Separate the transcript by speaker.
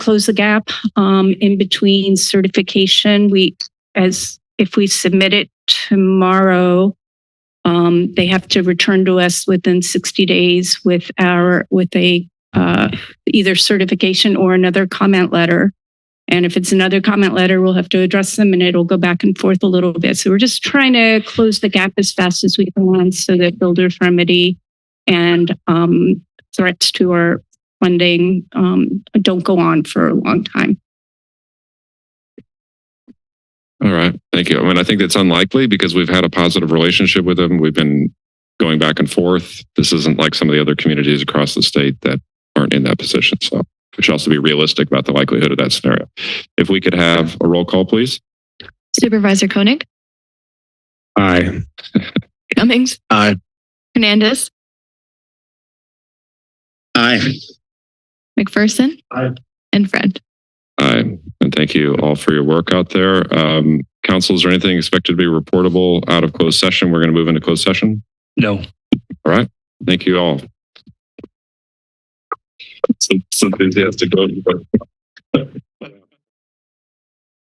Speaker 1: close the gap um, in between certification. We, as if we submit it tomorrow, um, they have to return to us within 60 days with our, with a, uh, either certification or another comment letter. And if it's another comment letter, we'll have to address them and it'll go back and forth a little bit. So we're just trying to close the gap as fast as we can so that builders remedy and um, threats to our funding um, don't go on for a long time.
Speaker 2: All right. Thank you. I mean, I think that's unlikely because we've had a positive relationship with them. We've been going back and forth. This isn't like some of the other communities across the state that aren't in that position. So we should also be realistic about the likelihood of that scenario. If we could have a roll call, please.
Speaker 3: Supervisor Koenig,
Speaker 4: Aye.
Speaker 3: Cummings,
Speaker 4: Aye.
Speaker 3: Hernandez,
Speaker 4: Aye.
Speaker 3: McPherson,
Speaker 4: Aye.
Speaker 3: and Friend.
Speaker 2: Aye. And thank you all for your work out there. Um, council, is there anything expected to be reportable out of closed session? We're going to move into closed session.
Speaker 4: No.
Speaker 2: All right. Thank you all. Some enthusiastic vote.